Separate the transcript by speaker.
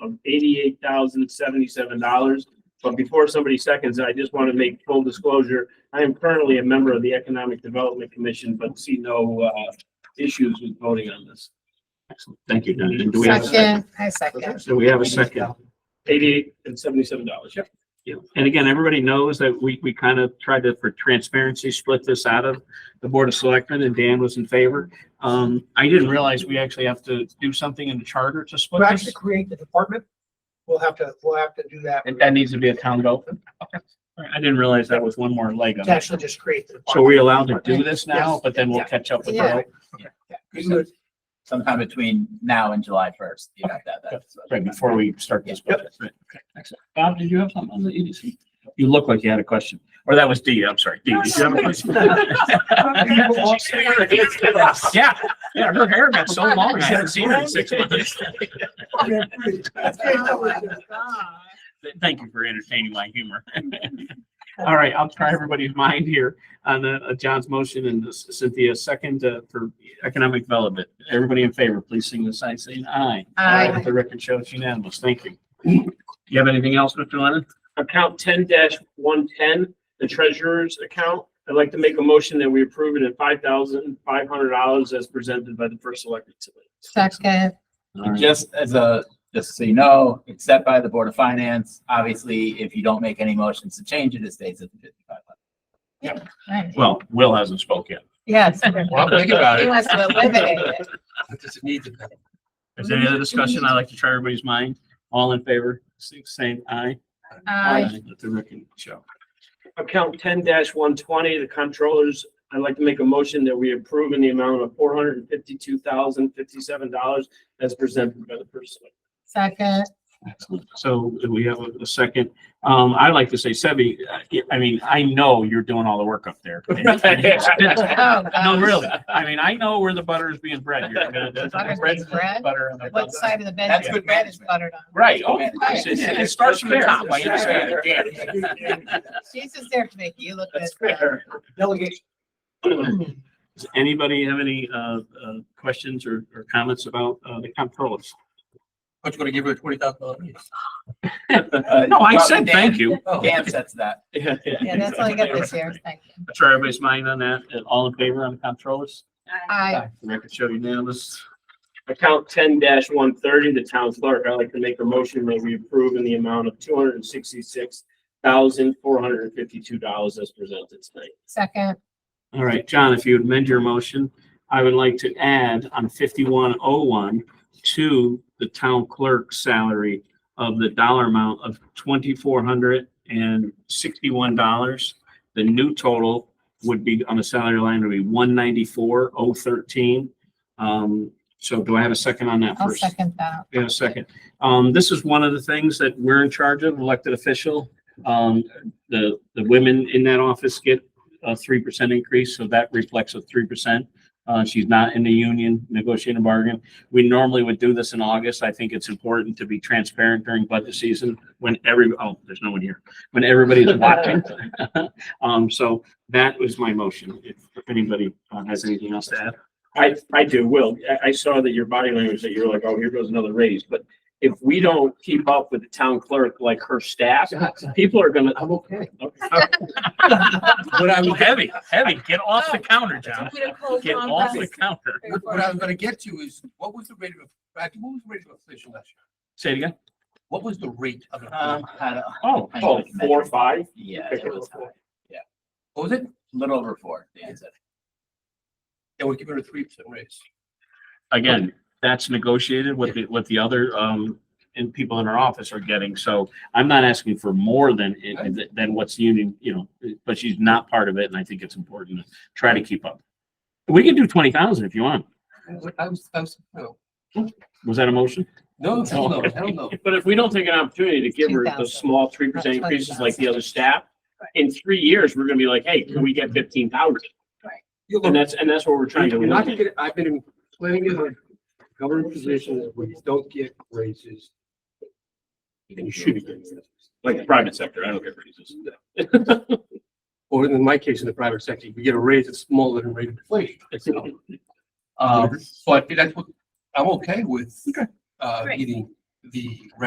Speaker 1: of eighty-eight thousand seventy-seven dollars. But before somebody seconds, I just want to make full disclosure. I am currently a member of the Economic Development Commission, but see no uh issues with voting on this.
Speaker 2: Excellent. Thank you, Don. And do we have a second?
Speaker 3: Second, I second.
Speaker 2: So we have a second.
Speaker 1: Eighty-eight and seventy-seven dollars, yep.
Speaker 2: Yeah. And again, everybody knows that we, we kind of tried to, for transparency, split this out of the Board of Selectmen and Dan was in favor. Um, I didn't realize we actually have to do something in the charter to
Speaker 4: We'll
Speaker 2: split
Speaker 4: actually
Speaker 2: this.
Speaker 4: create the department. We'll have to, we'll have to do that.
Speaker 2: And that needs to be a town vote. Okay. All right. I didn't realize that was one more leg. on
Speaker 4: To
Speaker 2: it.
Speaker 4: actually just create the
Speaker 2: So we
Speaker 4: department.
Speaker 2: allowed to do this now, but then we'll catch up with the vote.
Speaker 4: You would-
Speaker 5: sometime between now and July first, you have to have that.
Speaker 2: Right, before we start this budget. Right. Okay, excellent. Bob, did you have something on the EDC? You look like you had a question, or that was D, I'm sorry. D, did you have a question? Yeah, yeah, her hair got so long, I haven't seen her in six months. Thank you for entertaining my humor. All right, I'll try everybody's mind here on uh, uh, John's motion and Cynthia's second uh, for economic development. Everybody in favor, please sing the sign saying aye.
Speaker 3: Aye.
Speaker 2: Let The record shows unanimous. Thank you. You have anything else, Mr. Lennon?
Speaker 1: Account ten one ten, the treasurer's account. I'd like to make a motion that we approve it at five thousand five hundred dollars as presented by the first elected.
Speaker 3: Second,
Speaker 2: All right.
Speaker 5: Just as a, just so you know, it's set by the Board of Finance. Obviously, if you don't make any motions to change it, it stays at the fifty-five.
Speaker 3: Right.
Speaker 2: Well, Will hasn't spoke yet.
Speaker 3: yes.
Speaker 6: Well, I'm thinking about
Speaker 3: He
Speaker 6: it.
Speaker 3: wants to eliminate it.
Speaker 6: What does it need to be?
Speaker 2: Is there any other discussion? I'd like to try everybody's mind. All in favor, sing- saying aye.
Speaker 3: Aye.
Speaker 2: Let the record show.
Speaker 1: Account ten one twenty, the controllers, I'd like to make a motion that we approve in the amount of four hundred and fifty-two thousand fifty-seven dollars as presented by the first. selectman.
Speaker 3: Second,
Speaker 2: Excellent. So we have a- a second. Um, I'd like to say, Sebi, uh, I- I mean, I know you're doing all the work up there.
Speaker 3: oh,
Speaker 2: No,
Speaker 3: gosh.
Speaker 2: really. I mean, I know where the butter is being bread. You're gonna-
Speaker 3: Butter's
Speaker 2: bread's
Speaker 3: being bread?
Speaker 2: butter on the-
Speaker 3: What side of the bed?
Speaker 5: That's
Speaker 3: is
Speaker 5: good
Speaker 3: bread is
Speaker 5: management.
Speaker 3: buttered on?
Speaker 2: Right. Oh, of course. It it starts from the top. I understand.
Speaker 3: She's just there to make you look good.
Speaker 1: That's fair.
Speaker 4: Delegation.
Speaker 2: Does anybody have any, uh, uh, questions or, or comments about, uh, the comptrollers?
Speaker 6: What, you gonna give her a twenty thousand dollars?
Speaker 2: No, I said thank you.
Speaker 5: Dan sets that.
Speaker 2: Yeah,
Speaker 3: Yeah, that's all I got this year. Thank you.
Speaker 2: That's where everybody's mind on that. And All in favor on the comptrollers?
Speaker 3: Aye.
Speaker 2: The Record show unanimous.
Speaker 1: Account ten one thirty, the town clerk, I'd like to make a motion that we approve in the amount of two hundred and sixty-six thousand four hundred and fifty-two dollars as presented tonight.
Speaker 3: Second,
Speaker 2: All right, John, if you would amend your motion, I would like to add on fifty-one oh one to the town clerk's salary of the dollar amount of twenty-four hundred and sixty-one dollars. The new total would be on the salary line would be one ninety-four oh thirteen. Um, so do I have a second on that
Speaker 3: I'll
Speaker 2: first?
Speaker 3: second that.
Speaker 2: in a second. Um, this is one of the things that we're in charge of, elected official. Um, the, the women in that office get a three percent increase, so that reflects a three percent. Uh, she's not in the union negotiating a bargain. We normally would do this in August. I think it's important to be transparent during budget season when every, oh, there's no one here, when everybody's watching. Um, so that was my motion. If anybody uh, has anything else to add.
Speaker 1: I, I do, Will. I, I saw that your body language, that you were like, oh, here goes another raise, but if we don't keep up with the town clerk, like her staff, people are gonna. I'm okay.
Speaker 2: What I was heavy, heavy, get off the counter, John. Get off the counter.
Speaker 6: What I was gonna get to is, what was the rate of, actually, what was the rate of inflation last year?
Speaker 2: Say it again.
Speaker 6: What was the rate of? inflation?
Speaker 5: Um, I don't,
Speaker 2: Oh,
Speaker 5: I
Speaker 1: Oh,
Speaker 5: don't remember.
Speaker 1: four, five?
Speaker 5: Yeah, it was high.
Speaker 6: What was it?
Speaker 5: little over four, Dan said.
Speaker 6: Yeah, we give her a three percent raise.
Speaker 2: again, that's negotiated with the, with the other, um, and people in our office are getting. So I'm not asking for more than, than what's the union, you know, but she's not part of it. And I think it's important to try to keep up. We can do twenty thousand if you want.
Speaker 6: What- I was, I was, no,
Speaker 2: Was that a motion?
Speaker 6: no, hell no, hell no.
Speaker 1: But if we don't take an opportunity to give her those
Speaker 3: 2,000.
Speaker 1: small three percent
Speaker 3: That's
Speaker 1: increases
Speaker 3: 20,000.
Speaker 1: like the other staff, in three years, we're gonna be like, hey, can we get fifteen thousand?
Speaker 7: You're
Speaker 1: And
Speaker 7: gonna-
Speaker 1: that's, and that's what we're trying to.
Speaker 7: you're not gonna
Speaker 1: eliminate.
Speaker 7: get, I've been in plenty of government positions where you don't get raises. And you should be getting raises.
Speaker 1: Like the private sector, I don't get raises.
Speaker 7: Or in my case, in the private sector, you get a raise that's smaller than rate of inflation. So, uh,
Speaker 6: Um, but that's what, I'm okay with, uh, getting the rest